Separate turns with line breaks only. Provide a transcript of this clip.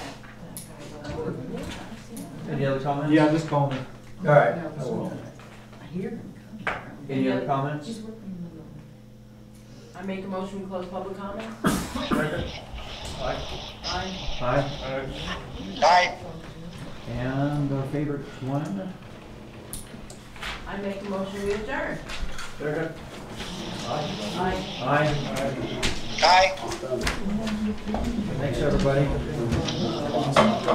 Any other comments?
Yeah, just call me.
All right.
No,
I will.
I hear him coming.
Any other comments?
She's working in the room.
I make a motion to close public comment? Aye.
Aye.
Aye.
And our favorite one?
I make a motion to adjourn.
Aye.
Aye.
Aye.
Aye.
Thanks, everybody.